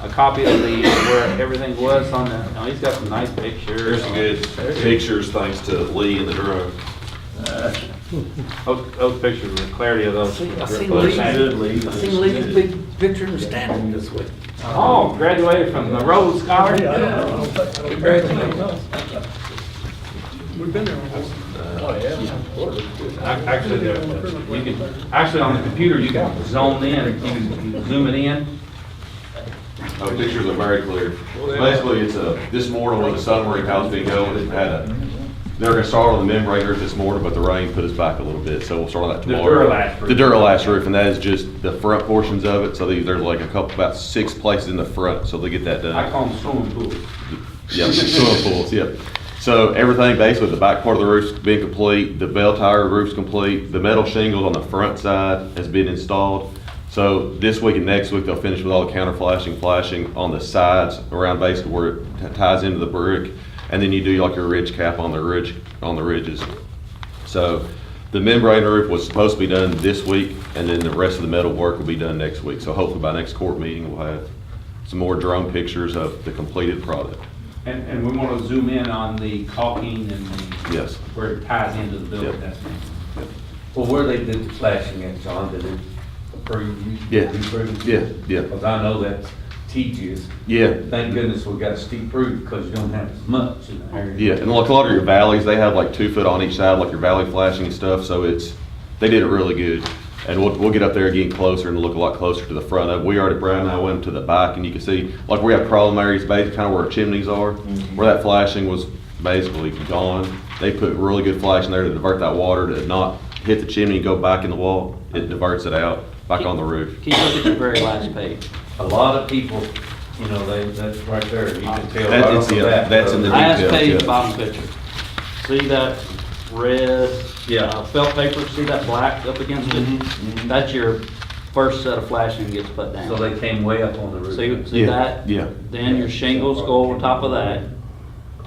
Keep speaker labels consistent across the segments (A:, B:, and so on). A: a copy of the, where everything was on the, oh, he's got some nice pictures.
B: There's some good pictures, thanks to Lee and the drone.
A: Those, those pictures, the clarity of those.
C: I
A: were
C: seen
A: really
C: Lee,
A: nice.
C: I seen Lee's big picture in the standing this way.
A: Oh, graduated from the Rhodes Scholar.
D: We've been there.
A: Ac- Oh, Actually, there- you can, actually on the computer, you can zone in, you can zoom it in.
B: Oh, pictures are very clear. Basically, it's a, this morning when the submarine house being going, it had a, they were gonna start on the membrane roof this morning, but the rain put us back a little bit, so we'll start on that
A: The
B: tomorrow.
A: Duralast roof.
B: The Duralast roof, and that is just the front portions of it, so they- there's like a couple, about six places in the front, so they get that done.
A: I call them swimming pools.
B: Yeah, swimming pools, yeah. So everything basically, the back part of the roof's been complete, the bell tower roof's complete, the metal shingles on the front side has been installed. So this week and next week, they'll finish with all the counter flashing, flashing on the sides around basically where it t- ties into the brick. And then you do like your ridge cap on the ridge, on the ridges. So the membrane roof was supposed to be done this week and then the rest of the metal work will be done next week. So hopefully by next court meeting, we'll have some more drone pictures of the completed product.
A: And, and we want to zoom in on the caulking and the.
B: Yes.
A: Where it ties into the building,
B: Yep.
A: that's me.
C: Well, where they did the flashing at, John, did it approve? you-
B: Yeah.
C: you approve?
B: Yeah, yeah.
C: Because I know that's tedious.
B: Yeah,
C: Thank goodness we got steep roof because you don't have as much in the area.
B: yeah, and like a lot of your valleys, they have like two foot on each side, like your valley flashing and stuff, so it's, they did it really good. And we'll, we'll get up there again closer and look a lot closer to the front of, it. we already, Brad and I went to the back and you can see, like we have problem areas, basically kind of where our chimneys are, where that flashing was basically gone. They put really good flashing there to divert that water, to not hit the chimney and go back in the wall, it diverts it out, back on the roof.
E: Can you look at the very last page?
C: A lot of people, you know, they, that's right there. You can tell right
B: That-
C: off
B: it's
C: the
B: the- uh,
C: bat. uh,
B: that's in the-
E: Last
B: details,
E: page,
B: yeah.
E: bottom picture. See that red?
C: Yeah.
E: uh, Felt paper, see that black up against
C: mhm.
E: it? That's your first set of flashing gets put
C: So
E: down.
C: they came way up on the roof.
E: See, see that?
B: Yeah.
E: Then your shingles go over top of that.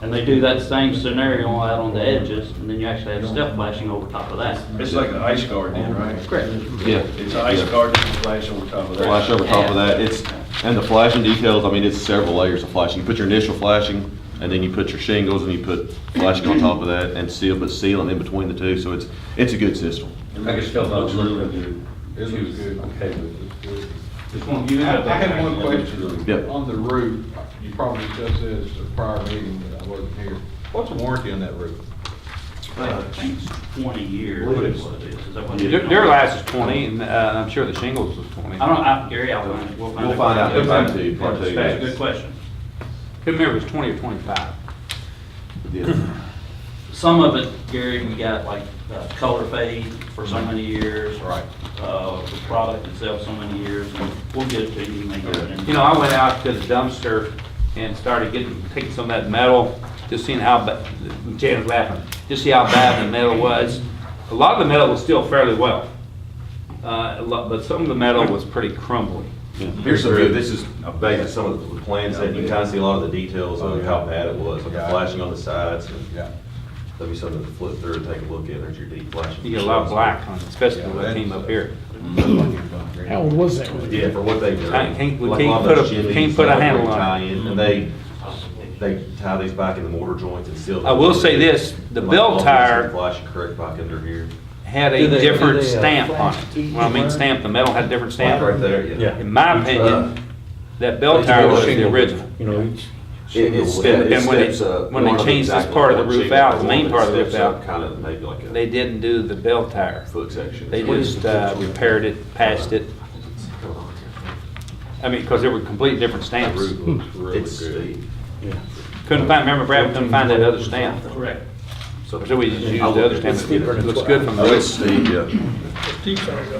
E: And they do that same scenario out on the edges, and then you actually have step flashing over top of that.
F: It's like an ice guard then, right?
E: Correct.
B: Yeah.
F: It's an ice guard and flash over top of that.
B: flash over top of that, it's, and the flashing details, I mean, it's several layers of flashing. You put your initial flashing, and then you put your shingles, and you put flashing on top of that, and seal, but sealing in between the two, so it's, it's a good system.
C: I can still not look at you.
F: It looks good.
C: Okay with it.
A: Just want you
D: I
A: to have that.
D: have one question.
B: Yep.
D: On the roof, you probably discussed this at a prior meeting, but I wasn't here. What's the warranty on that roof?
E: Uh, I think it's Twenty years.
B: What is-
E: what it is. Is that what
A: Their
E: it is?
A: their last is twenty, and, uh, I'm sure the shingles was twenty.
E: I don't, I, Gary, I'll find it. We'll
B: We'll find out. Get back to you, part two.
E: That's a good question.
A: Couldn't remember if it was twenty or twenty-five.
B: Yeah.
E: Some of it, Gary, we got like uh, color fade for so many years.
A: Right.
E: Uh, the product itself so many years, and we'll get it to you, make it. in.
A: You know, I went out to the dumpster and started getting, taking some of that metal, just seeing how, ba- Jan's laughing, just see how bad the metal was. A lot of the metal was still fairly well, uh, a lot- but some of the metal was pretty crumbly.
B: Here's some, this is basically some of the plans, that you can kind of see a lot of the details of how bad it was, like the flashing on the sides, and
D: Yeah.
B: that'd be something to flip through and take a look at, there's your deep flashing.
A: You get a lot of black on it, especially when it came up here.
G: How old was that? one?
B: Yeah, for what they've done.
A: Can't- can't- we
B: Like a lot
A: can't
B: of those
A: put a-
B: chimneys,
A: can't put a
B: they have
A: handle on it.
B: tie-in, And they, they tie these back in the mortar joints and seal. them.
A: I will say this, the
B: Like
A: bell
B: all these
A: tire-
B: Flash and correct back under here.
A: Had
C: Do
A: a
C: they- do
A: different
C: they, uh,
A: stamp on
C: flash
A: it. Well, I mean stamp, the metal had a different
B: Like
A: stamp.
B: right there, uh, yeah.
C: Yeah.
A: In my opinion, that bell tower was the original.
C: You know, each.
B: It- it's-
A: And- and
B: it
A: when they-
B: steps up.
A: when they
B: One of
A: changed this
B: exactly
A: part of the
B: one
A: roof
B: shingle,
A: out, the main
B: one
A: part of the
B: that
A: roof
B: steps
A: out,
B: up Kind of maybe like a.
A: They didn't do the bell tire.
B: Foot section.
A: They just uh, repaired it, patched it. I mean, because they were completely different stamps.
F: Looks really
B: It's
F: good.
B: steep.
A: Couldn't find, remember Brad, couldn't find that other stamp.
E: Correct.
A: So we just used the other stamp. It Looks good from the
B: Oh, it's
A: roof.
B: steep, yeah.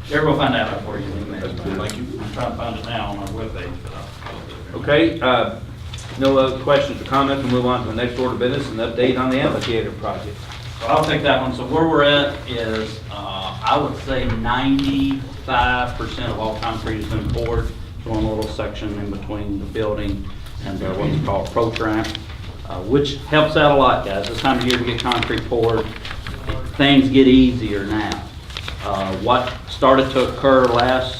E: Gary, we'll find that out for you. in a minute. I'm trying to find it now on our webpage, but I'll.
A: Okay, uh, no other questions or comments, we'll move on to the next order of business, an update on the amphitheater project.
E: So I'll take that one. So where we're at is, uh, I would say ninety-five percent of all concrete has been poured. There's one little section in between the building and the what's called pro tramp, uh, which helps out a lot, guys. This time of year to get concrete poured, things get easier now. Uh, What started to occur last